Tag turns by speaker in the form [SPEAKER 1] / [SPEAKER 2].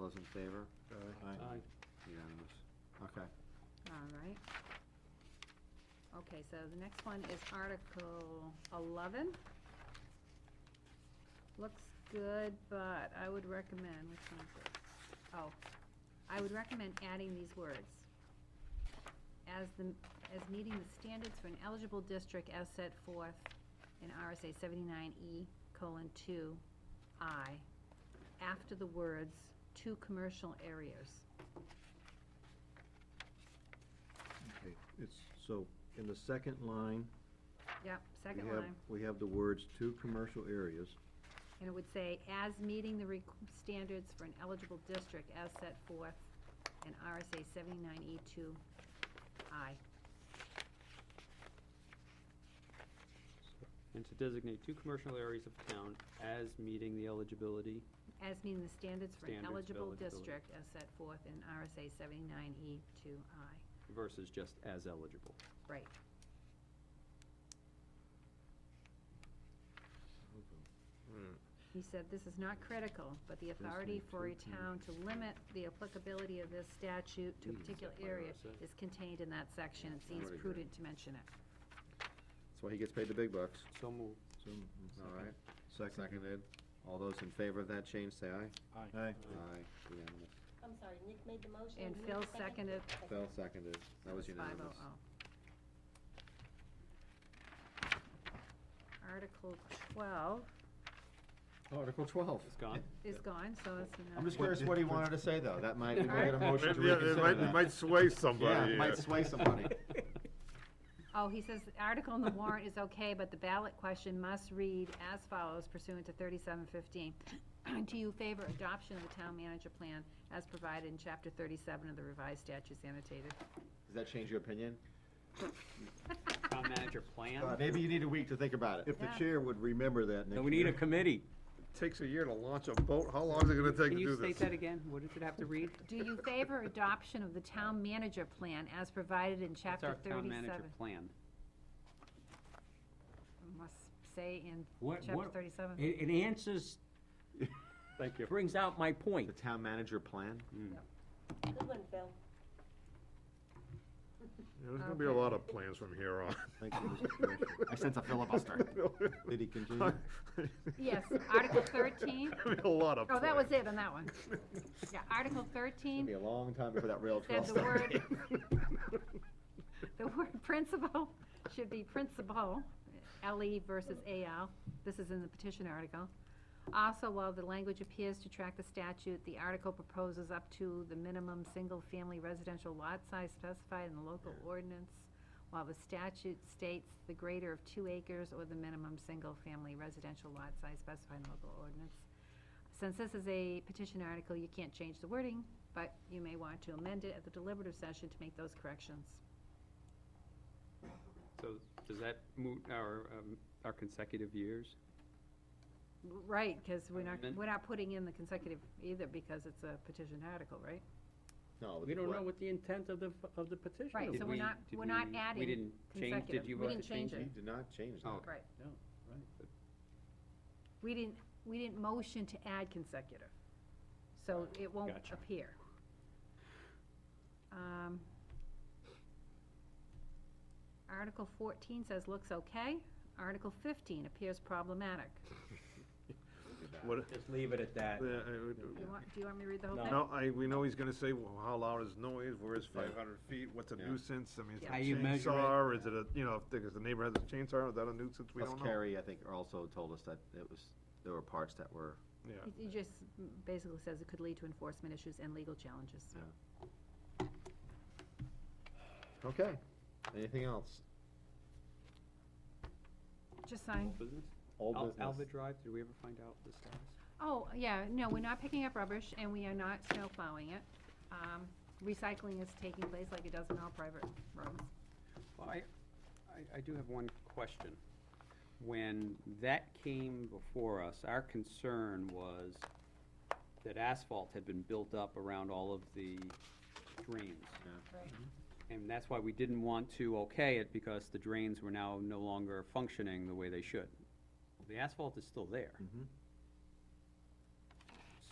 [SPEAKER 1] those in favor?
[SPEAKER 2] Aye.
[SPEAKER 1] Unanimous. Okay.
[SPEAKER 3] All right. Okay, so the next one is Article eleven. Looks good, but I would recommend, which one is this? Oh, I would recommend adding these words. As the, as meeting the standards for an eligible district as set forth in RSA seventy-nine E colon two I, after the words, two commercial areas.
[SPEAKER 4] Okay, it's, so, in the second line.
[SPEAKER 3] Yep,
[SPEAKER 4] we
[SPEAKER 3] second
[SPEAKER 4] have-
[SPEAKER 3] line.
[SPEAKER 4] We have the words two commercial areas.
[SPEAKER 3] And it would say, as meeting the requ- standards for an eligible district as set forth in RSA seventy-nine E two I.
[SPEAKER 2] And to designate two commercial areas of town as meeting the eligibility.
[SPEAKER 3] As meeting the standards for an
[SPEAKER 2] Standards of
[SPEAKER 3] eligible
[SPEAKER 2] eligibility.
[SPEAKER 3] district as set forth in RSA seventy-nine E two I.
[SPEAKER 2] versus just as eligible.
[SPEAKER 3] Right. He said, this is not critical, but the authority for a town to limit the applicability of this statute to a particular
[SPEAKER 2] that what
[SPEAKER 3] area
[SPEAKER 2] I said?
[SPEAKER 3] is contained in that section. It seems
[SPEAKER 1] Already did.
[SPEAKER 3] prudent to mention it.
[SPEAKER 1] That's why he gets paid the big bucks.
[SPEAKER 2] So moved.
[SPEAKER 4] So, mm,
[SPEAKER 1] All right.
[SPEAKER 4] Second.
[SPEAKER 1] Mm-hmm. Seconded. All those in favor of that change, say aye.
[SPEAKER 4] Aye.
[SPEAKER 2] Uh,
[SPEAKER 1] Aye. Unanimous.
[SPEAKER 5] I'm sorry, Nick made the motion.
[SPEAKER 3] And
[SPEAKER 5] you
[SPEAKER 3] Phil seconded.
[SPEAKER 1] Phil seconded. That was
[SPEAKER 3] It's 500.
[SPEAKER 1] unanimous.
[SPEAKER 3] oh. Article twelve oh.
[SPEAKER 1] Article twelve.
[SPEAKER 2] It's gone?
[SPEAKER 3] is gone, so it's
[SPEAKER 1] I'm
[SPEAKER 3] not,
[SPEAKER 1] just curious what he wanted to say, though. That might, we might get a motion to
[SPEAKER 6] Maybe, yeah,
[SPEAKER 1] reconsider
[SPEAKER 6] it
[SPEAKER 1] that.
[SPEAKER 6] might, it might sway
[SPEAKER 1] Yeah,
[SPEAKER 6] somebody.
[SPEAKER 1] it
[SPEAKER 6] yeah.
[SPEAKER 1] might sway somebody.
[SPEAKER 3] oh, he says, the article in the warrant is okay, but the ballot question must read as follows pursuant to thirty-seven fifteen. Do you favor adoption of the town manager plan as provided in chapter thirty-seven of the revised statutes annotated?
[SPEAKER 1] Does that change your opinion?
[SPEAKER 2] Town manager plan?
[SPEAKER 1] Uh, Maybe you need a week to think about it.
[SPEAKER 4] If the
[SPEAKER 3] Yeah.
[SPEAKER 4] chair would remember that next year.
[SPEAKER 7] No, we need a committee.
[SPEAKER 6] Takes a year to launch a boat, how long is it gonna take to
[SPEAKER 7] Can
[SPEAKER 6] do
[SPEAKER 7] you
[SPEAKER 6] this?
[SPEAKER 7] state that again? What does it have to read?
[SPEAKER 3] Do you favor adoption of the town manager plan as provided in
[SPEAKER 7] That's
[SPEAKER 3] chapter
[SPEAKER 7] our
[SPEAKER 3] thirty-seven?
[SPEAKER 7] town manager plan.
[SPEAKER 3] Must say in
[SPEAKER 7] What-
[SPEAKER 3] chapter
[SPEAKER 7] what-
[SPEAKER 3] thirty-seven?
[SPEAKER 7] It, it answers,
[SPEAKER 2] Thank you.
[SPEAKER 7] brings out my
[SPEAKER 1] The
[SPEAKER 7] point.
[SPEAKER 1] town manager plan?
[SPEAKER 7] Mm-hmm.
[SPEAKER 5] Good one, Phil.
[SPEAKER 6] Yeah, There's gonna be a lot of plans from here on.
[SPEAKER 4] Thank you, Mr. Commissioner.
[SPEAKER 1] I sense a filibuster.
[SPEAKER 4] Did he continue?
[SPEAKER 3] Yes, Article 13.
[SPEAKER 6] There'll be A lot of
[SPEAKER 3] Oh,
[SPEAKER 6] plans.
[SPEAKER 3] that was it on that one. Yeah, Article
[SPEAKER 1] It'll be
[SPEAKER 3] thirteen,
[SPEAKER 1] a long time before that rail trail
[SPEAKER 3] said the
[SPEAKER 1] starts.
[SPEAKER 3] word, the word principal should be principal, LE versus AL. This is in the petition article. Also, while the language appears to track the statute, the article proposes up to the minimum single-family residential lot size specified in the local ordinance, while the statute states the greater of two acres or the minimum single-family residential lot size specified in the local ordinance. Since this is a petition article, you can't change the wording, but you may want to amend it at the deliberative session to make those corrections.
[SPEAKER 2] So does that moot our, um, our consecutive years?
[SPEAKER 3] Right, because we're not,
[SPEAKER 2] Amendment?
[SPEAKER 3] we're not putting in the consecutive either because it's a petition article, right?
[SPEAKER 1] No,
[SPEAKER 7] We don't
[SPEAKER 1] what-
[SPEAKER 7] know what the intent of the, of the petition
[SPEAKER 3] Right,
[SPEAKER 7] is.
[SPEAKER 3] so
[SPEAKER 2] Did
[SPEAKER 3] we're
[SPEAKER 2] we-
[SPEAKER 3] not,
[SPEAKER 2] did
[SPEAKER 3] we're not
[SPEAKER 2] we- we
[SPEAKER 3] adding
[SPEAKER 2] didn't change- did
[SPEAKER 3] consecutive.
[SPEAKER 2] you
[SPEAKER 3] We
[SPEAKER 2] vote
[SPEAKER 3] didn't
[SPEAKER 2] to
[SPEAKER 3] change
[SPEAKER 2] change
[SPEAKER 1] He did
[SPEAKER 3] it.
[SPEAKER 1] not change
[SPEAKER 2] Oh,
[SPEAKER 1] that.
[SPEAKER 2] okay.
[SPEAKER 3] Right.
[SPEAKER 7] No, right.
[SPEAKER 3] We didn't, we didn't motion to add consecutive. So it won't
[SPEAKER 2] Gotcha.
[SPEAKER 3] appear. Um, Article fourteen says looks okay. Article fifteen appears problematic.
[SPEAKER 6] What,
[SPEAKER 7] Just leave it at that.
[SPEAKER 6] yeah, I would-
[SPEAKER 3] You want, do you want me to read the whole thing?
[SPEAKER 6] No, I, we know he's gonna say, well, how loud is noise, where is five hundred feet, what's a
[SPEAKER 1] Yeah.
[SPEAKER 6] nuisance, I mean,
[SPEAKER 3] How
[SPEAKER 6] is
[SPEAKER 7] you
[SPEAKER 6] it a
[SPEAKER 7] measure it.
[SPEAKER 6] chainsaw, is it a, you know, if, the- 'cause the neighbor has a chainsaw, is that a nuisance, we
[SPEAKER 1] Plus
[SPEAKER 6] don't know.
[SPEAKER 1] Carrie, I think, also told us that it was, there were parts that were,
[SPEAKER 6] Yeah,
[SPEAKER 3] It- It just mm, basically says it could lead to enforcement issues and legal challenges.
[SPEAKER 1] Yeah. okay. Anything else?
[SPEAKER 3] Just sign.
[SPEAKER 2] Business?
[SPEAKER 1] Old
[SPEAKER 2] Al-
[SPEAKER 1] business.
[SPEAKER 2] Alva Drive, did we ever find out the status?
[SPEAKER 3] Oh, yeah, no, we're not picking up rubbish and we are not snow plowing it. Um, recycling is taking place like it does in all private roads.
[SPEAKER 2] Well, I, I, I do have one question. When that came before us, our concern was that asphalt had been built up around all of the drains.
[SPEAKER 3] Right.
[SPEAKER 2] And that's why we didn't want to okay it, because the drains were now no longer functioning the way they should. The asphalt is still there.